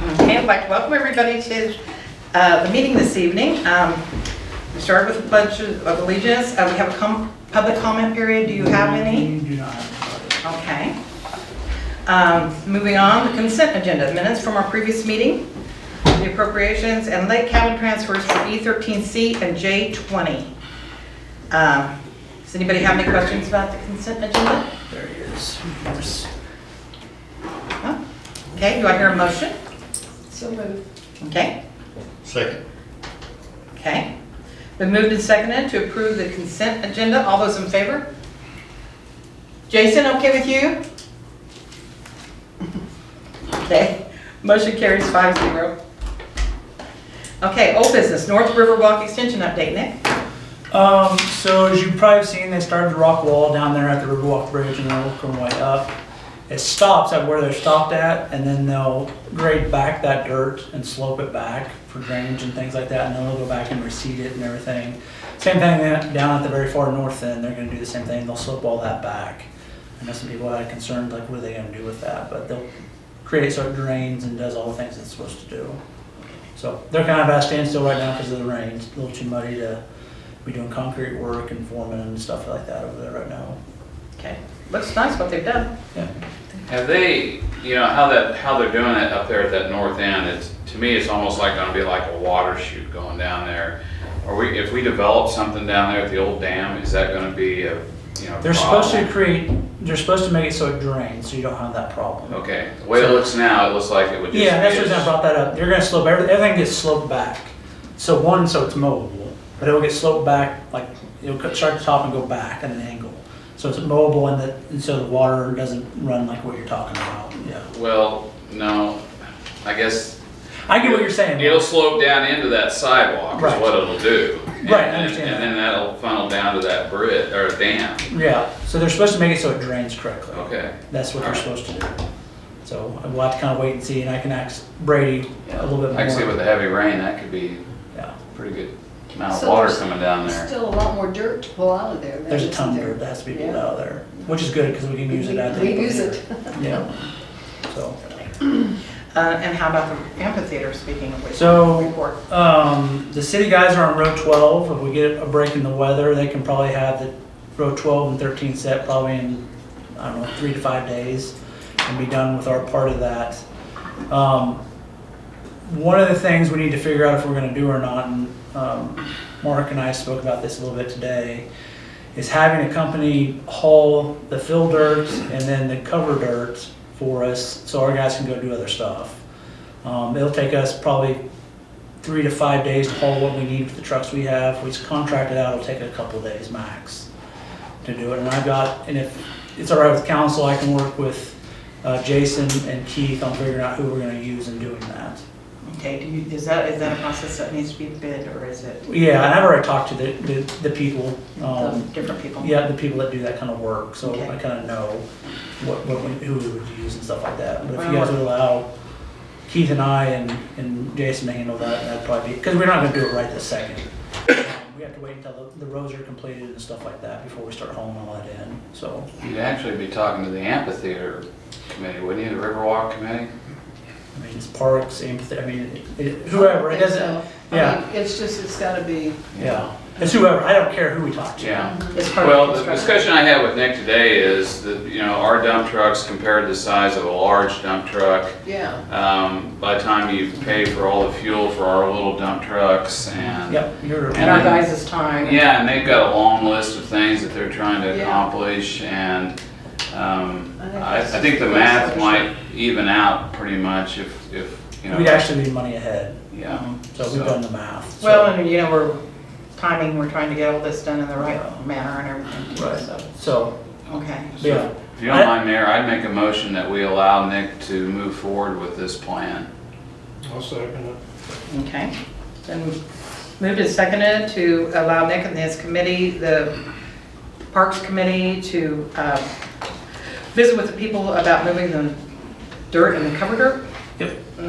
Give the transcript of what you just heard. I'd like to welcome everybody to uh, the meeting this evening. Um, We start with a pledge of allegiance. Uh, We have a com- public comment period. Do you have any? Do not have Okay. Um, Moving on, the consent agenda, minutes from our previous meeting, the appropriations and late cabin transfers for E13C and J20. Um, Does anybody have any questions about the consent agenda? There he is. No? Okay, do I hear a motion? So moved. Okay. Second. Okay. Been moved and seconded to approve the consent agenda. All those in favor? Jason, okay with you? Okay. Motion carries five zero. Okay, old business, North Riverwalk Extension update, Nick. Um, so as you probably have seen, they started the rock wall down there at the Riverwalk Bridge and they're working way up. It stops at where they're stopped at and then they'll grade back that dirt and slope it back for drainage and things like that. And then they'll go back and reseed it and everything. Same thing that- down at the very far north end, they're gonna do the same thing. They'll slope all that back. I know some people had concerns, like what are they gonna do with that? But they'll create so it drains and does all the things it's supposed to do. So they're kind of at a standstill right now because of the rains. A little too muddy to be doing concrete work and forming and stuff like that over there right now. Okay. Looks nice what they've done. Yeah. Have they, you know, how that, how they're doing it up there at that north end, it's, to me, it's almost like gonna be like a water chute going down there. Are we, if we develop something down there at the old dam, is that gonna be a, you know? They're supposed to problem? create, they're supposed to make it so it drains, so you don't have that problem. Okay, the way it looks now, it looks like it would just. Yeah, that's be the reason I a- brought that up. You're gonna slope, every- everything gets sloped back. So one, so it's mowable, but it'll get sloped back, like, it'll cut- start at the top and go back at an angle. So it's mowable and that, and so the water doesn't run like what you're talking about, yeah. Well, no, I guess. I get what you're saying. It'll slope down into that sidewalk Right. is what it'll do. And Right, I then- understand And that. then that'll funnel down to that bridge, or dam, Yeah, so they're supposed to make it so it drains correctly. okay. That's what they're supposed to do. So we'll have to kind of wait and see, and I can ask Brady a little bit more. I can see with the heavy rain, that could be Yeah, pretty good amount So of water there's coming down There's there. still a lot more dirt to pull out of there. than there's a is ton of there. dirt that has to be pulled Yeah. out of there, which is good, because we can use it at the. We use it. Yeah, so. Uh, And how about the amphitheater, speaking of which? So- report? Um, the city guys are on row twelve. If we get a break in the weather, they can probably have the row twelve and thirteen set probably in, I don't know, three to five days and be done with our part of that. Um, one of the things we need to figure out if we're gonna do or not, and, um, Mark and I spoke about this a little bit today, is having a company haul the fill dirt and then the cover dirt for us, so our guys can go do other stuff. Um, it'll take us probably three to five days to haul what we need for the trucks we have. If it's contracted out, it'll take a couple days max to do it. And I've got, and if it's all right with council, I can work with uh, Jason and Keith on figuring out who we're gonna use in doing that. Okay, do you, is that, is that a process that needs to be bid or is it Yeah, and I've already talked to the, the, the people, the um, different people? yeah, the people that do that kind of work, so Okay. I kind of know what, what, we- who we would use and stuff like that. But if Well, you guys would allow Keith and I and, and Jason to handle that, that'd probably be, because we're not gonna do it right this second. We have to wait until the, the roads are completed and stuff like that before we start hauling all that in, so. You'd actually be talking to the amphitheater committee, wouldn't you, the Riverwalk committee? I mean, it's parks, amphitheater, I mean, it- it- whoever, it doesn't, So, I yeah. mean, It's just, it's gotta be, yeah. It's whoever, I don't care who we talk to. Yeah. Um, It's part of Well, the construction. discussion I had with Nick today is that, you know, our dump trucks compared to the size of a large dump truck, yeah. um, by the time you pay for all the fuel for our little dump trucks and. Yep, you're. And our guys' time. Yeah, and they've got a long list of things that they're trying to Yeah. accomplish, and um, I think I, I that's think the the math solution. might even out pretty much if, if, you know. We'd actually be money ahead. Yeah. So we've done the math. so- Well, and you know, we're timing, we're trying to get all this done in the right manner and everything, too, Right. so, So, okay. yeah, If you don't mind, Mayor, I'd make a motion that we allow Nick to move forward with this plan. I'll second it. Okay. Then moved and seconded to allow Nick and his committee, the Parks Committee, to uh, visit with the people about moving the dirt and the cover dirt. Yep.